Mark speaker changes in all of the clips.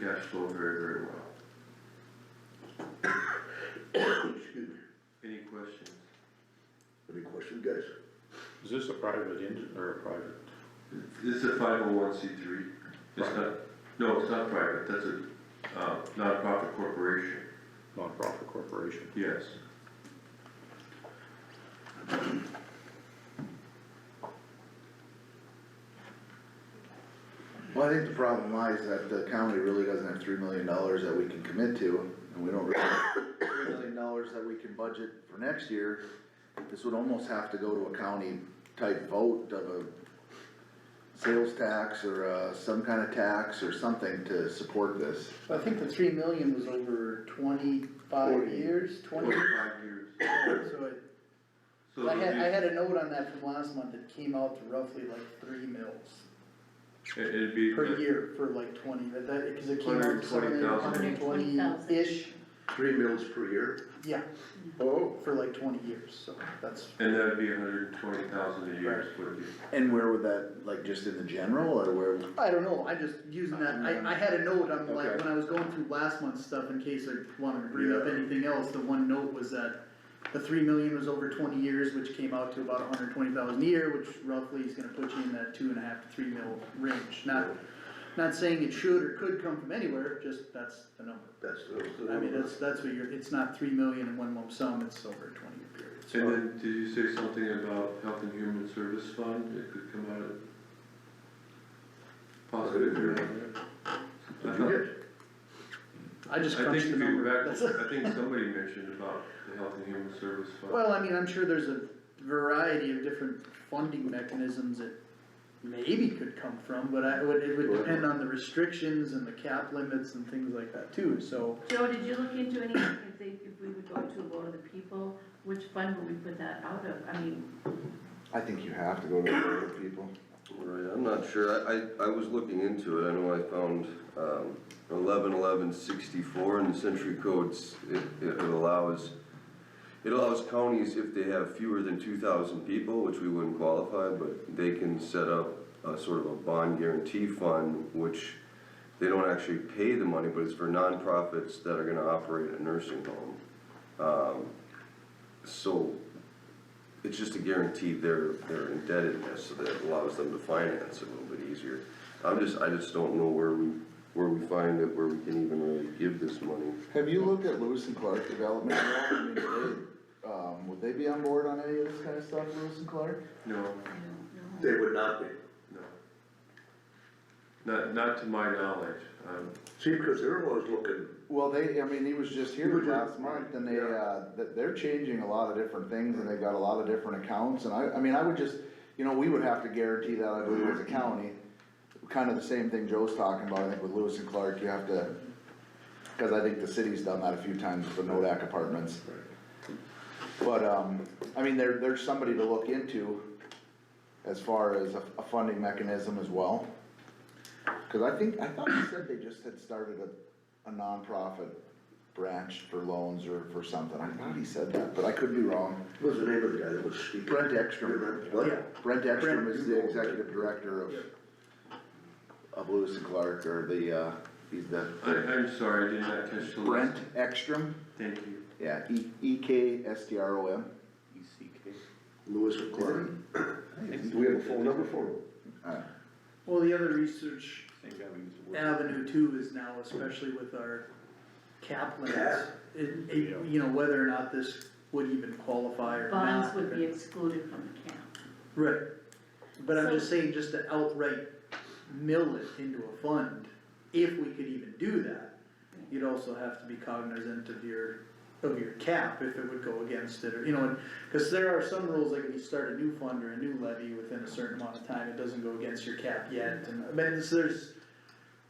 Speaker 1: cash flow very, very well.
Speaker 2: Excuse me.
Speaker 1: Any questions?
Speaker 2: Any questions, guys?
Speaker 3: Is this a private engine or a private?
Speaker 1: This is a five oh one C three, it's not, no, it's not private, that's a, uh, nonprofit corporation,
Speaker 3: nonprofit corporation.
Speaker 1: yes.
Speaker 4: Well, I think the problem lies that the county really doesn't have three million dollars that we can commit to, and we don't really have three million dollars that we can budget for next year. This would almost have to go to a county type vote of a sales tax or, uh, some kind of tax or something to support this.
Speaker 5: I think the three million was over twenty-five
Speaker 2: Forty.
Speaker 5: years, twenty,
Speaker 1: Forty-five years.
Speaker 5: so it-
Speaker 1: So
Speaker 5: I had, I
Speaker 1: it'd
Speaker 5: had a note on that from last month, it came out to roughly like three mils
Speaker 1: be, it- it'd be
Speaker 5: per year for like twenty, but that, cause it came out to something
Speaker 1: 120,000.
Speaker 5: hundred and twenty-ish,
Speaker 2: Three mills per year?
Speaker 5: yeah,
Speaker 2: Oh.
Speaker 5: for like twenty years, so that's.
Speaker 1: And that'd be hundred and twenty thousand a year, is what you,
Speaker 4: And where would that, like, just in the general, or where,
Speaker 5: I don't know, I'm just using that, I, I had a note on like,
Speaker 4: Okay.
Speaker 5: when I was going through last month's stuff, in case I wanted to bring up
Speaker 2: Yeah.
Speaker 5: anything else, the one note was that the three million was over twenty years, which came out to about hundred twenty thousand a year, which roughly is gonna put you in that two and a half to three mil range, not, not saying it should or could come from anywhere, just that's the number.
Speaker 2: That's the.
Speaker 5: I mean, that's, that's what you're, it's not three million in one lump sum, it's over a twenty year period, so.
Speaker 1: and then, did you say something about Health and Human Service Fund, it could come out of? Possibly.
Speaker 2: Did you
Speaker 1: I
Speaker 2: Did
Speaker 1: thought-
Speaker 2: you get?
Speaker 5: I just
Speaker 1: I think
Speaker 5: crunched the
Speaker 1: if you
Speaker 5: number.
Speaker 1: go back,
Speaker 5: That's-
Speaker 1: I think somebody mentioned about the Health and Human Service Fund.
Speaker 5: Well, I mean, I'm sure there's a variety of different funding mechanisms that maybe could come from, but I would, it would depend on the restrictions and the cap limits and things like that too, so.
Speaker 6: Joe, did you look into any, if they, if we would go to a vote of the people, which fund would we put that out of? I mean,
Speaker 4: I think you have to go to the board of people.
Speaker 7: Right, I'm not sure, I, I, I was looking into it, I know I found, um, eleven eleven sixty-four in the century codes, it, it allows, it allows counties, if they have fewer than two thousand people, which we wouldn't qualify, but they can set up a sort of a bond guarantee fund, which they don't actually pay the money, but it's for nonprofits that are gonna operate a nursing home. Um, so, it's just a guarantee their, their indebtedness, uh, so that allows them to finance it a little bit easier. I'm just, I just don't know where we, where we find it, where we can even really give this money.
Speaker 4: Have you looked at Lewis and Clark development at all? I mean, do they, um, would they be on board on any of this kind of stuff, Lewis and Clark?
Speaker 1: No,
Speaker 6: I don't know.
Speaker 2: They would not be.
Speaker 1: no. Not, not to my knowledge, um,
Speaker 2: See, because they're always looking,
Speaker 4: Well, they, I mean, he was just
Speaker 2: He
Speaker 4: here
Speaker 2: was
Speaker 4: last
Speaker 2: just-
Speaker 4: month and they,
Speaker 2: yeah.
Speaker 4: uh, th- they're changing a lot of different things and they've got a lot of different accounts and I, I mean, I would just, you know, we would have to guarantee that, I believe, as a county. Kind of the same thing Joe's talking about, I think with Lewis and Clark, you have to, cause I think the city's done that a few times with the Nodak apartments. But, um, I mean, there, there's somebody to look into as far as a, a funding mechanism as well. Cause I think, I thought you said they just had started a, a nonprofit branch for loans or for something, I thought he said that, but I could be wrong.
Speaker 2: what was the name of the guy that was speaking?
Speaker 4: Brent Ekstrom,
Speaker 2: Remember? What?
Speaker 4: Brent Ekstrom
Speaker 2: Brent.
Speaker 4: is the executive director of, of Lewis and Clark, or the, uh, he's
Speaker 1: I,
Speaker 4: the,
Speaker 1: I'm sorry, I did not catch the last.
Speaker 4: Brent Ekstrom,
Speaker 1: Thank you.
Speaker 4: yeah, E, E K S T R O M.
Speaker 3: E ECK.
Speaker 2: Lewis and Clark. Do we have a phone number for him?
Speaker 5: Well, the other research
Speaker 3: Same guy we used to work.
Speaker 5: avenue too is now, especially with our cap limits,
Speaker 2: Cap.
Speaker 5: it, it- you know, whether or not this would even qualify or not.
Speaker 6: Bonds would be excluded from the cap.
Speaker 5: Right, but I'm
Speaker 6: So-
Speaker 5: just saying, just to outright mill it into a fund, if we could even do that, you'd also have to be cognizant of your, of your cap, if it would go against it, or, you know, and, cause there are some rules, like if you start a new fund or a new levy within a certain amount of time, it doesn't go against your cap yet, and, I mean, so there's,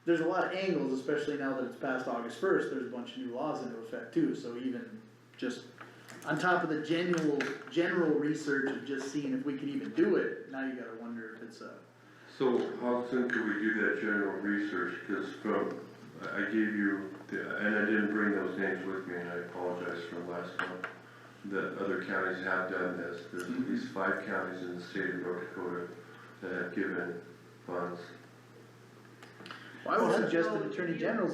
Speaker 5: there's a lot of angles, especially now that it's past August first, there's a bunch of new laws into effect too, so even just on top of the general, general research of just seeing if we can even do it, now you gotta wonder if it's a,
Speaker 1: So how soon could we do that general research, cause from, I I gave you, the- and I didn't bring those names with me, and I apologize for last month. That other counties have done this, there's at least five counties in the state of North Dakota that have given funds
Speaker 5: well, I would suggest an attorney general's